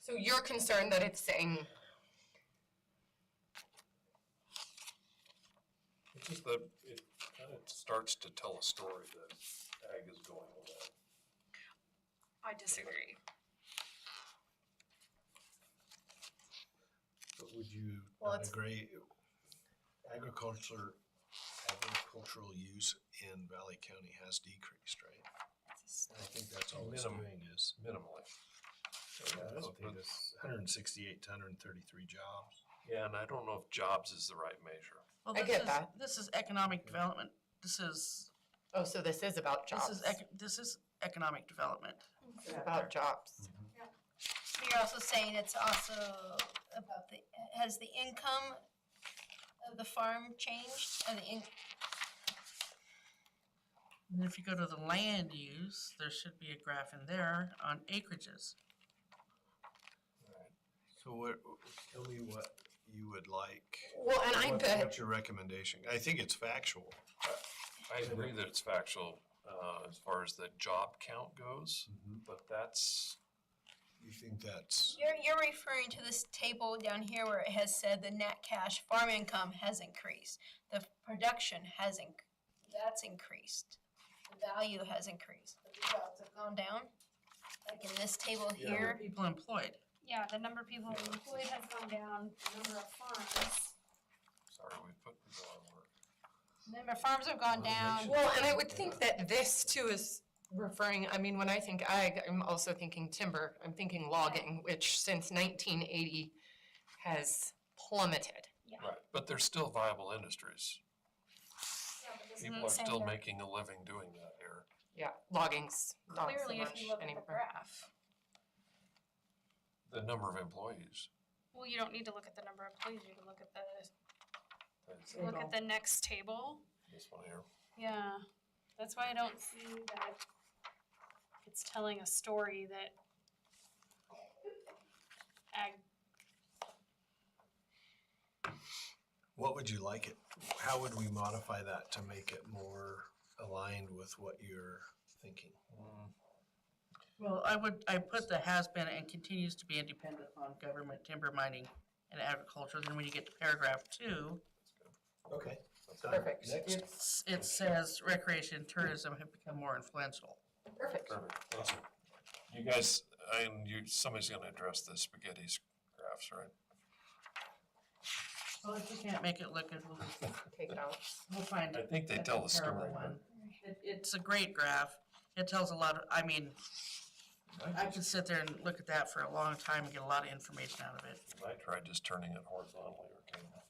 So you're concerned that it's saying, It's just that it kind of starts to tell a story that ag is going away. I disagree. But would you Well, not it's- agree agriculture, agricultural use in Valley County has decreased, right? And I think that's all it's Minimum. doing is. Minimally. Yeah, that's- but- Hundred and sixty-eight to hundred and thirty-three jobs. Yeah, and I don't know if jobs is the right measure. Well, I this get is- that. This is economic development. This is, Oh, so this is about this jobs. is, ec- this is economic development. It's about jobs. But You're also saying it's also about the, has the income of the farm changed? Or the in, And if you go to the land use, there should be a graph in there on acreages. So what, tell me what you would like. Well, and I What- bet, What's your recommendation? I think it's factual. I agree that it's factual, uh, as far as the job count goes, Mm-hmm. but that's, You think that's, you're, you're referring to this table down here where it has said the net cash farm income has increased. The production has inc, that's increased. The value has increased. but The jobs have gone down, like in this table Yeah. here. People employed. Yeah, the number of people employed has gone down, the number of farms, sorry, we put people on work. the Number of farms have gone down. well, and I would think that this too is referring, I mean, when I think ag, I'm also thinking timber. I'm thinking logging, which since nineteen eighty has plummeted. Right, but they're still viable industries. Yeah, but this People isn't are saying still that- making a living doing that here. Yeah, logging's not so Clearly, if much you look at the anymore. graph, The number of employees. well, you don't need to look at the number of employees, you can look at the, that's look at the next table. This one here. Yeah, that's why I don't see that it's telling a story that ag what would you like it? How would we modify that to make it more aligned with what you're thinking? Mm, Well, I would, I put the has been and continues to be independent on government timber mining and agriculture. Then when you get to paragraph two, Okay. done. Perfect. Next. s- it says recreation and tourism have become more influential. Perfect. Perfect, thank you. You guys, and you, somebody's gonna address the spaghetti graphs, right? Well, if we can't make it look, good, we'll, Take it out. we'll find I it. think they That's a tell the terrible story. one. It, it's a great graph. It tells a lot of, I mean, I could sit there and look at that for a long time and get a lot of information out of it. I tried just turning it horizontally or kind of.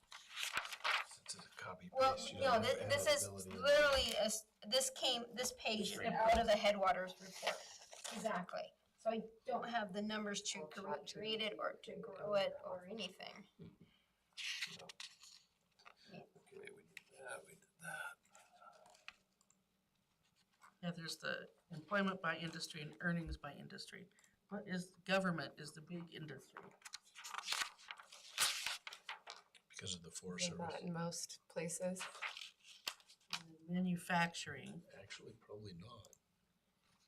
It's a copy Well, paste. you no, don't have this, this is editability. literally, a s- this came, this page is out of the Headwaters report. Exactly. So I don't have the numbers to gr- create it or to grow it or anything. Okay, we did that, we did that. Yeah, there's the employment by industry and earnings by industry. What is, government is the big industry. Because of the Forest Think Service. that in most places. Manufacturing, Actually, probably not.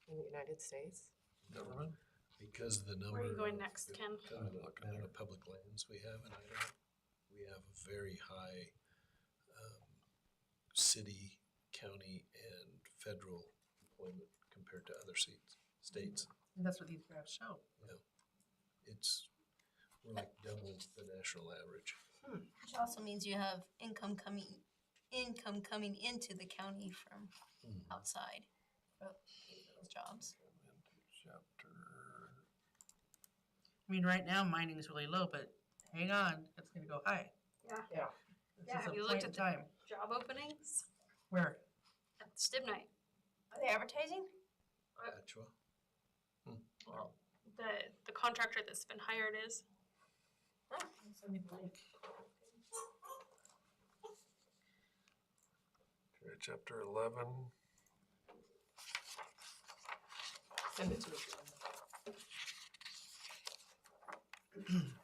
in the United States. Government? Because of the number. Where are you going of- next, Ken? kind of the Look amount there. of public lands we have in Idaho, we have a very high um, city, county, and federal employment compared to other seats, states. and that's what these graphs show. It's, we're like double the national average. Which also means you have income coming, income coming into the county from Hmm. Uh, outside. for those Jobs. Chapter. I mean, right now mining is really low, but hang on, it's gonna go high. Yeah. Yeah. Yeah, This is have a you looked point in at the- time. job openings Where? at Stibnite, Are they advertising? Actual. the, the contractor that's been hired is. Okay, Chapter eleven. Send it to me. oh oh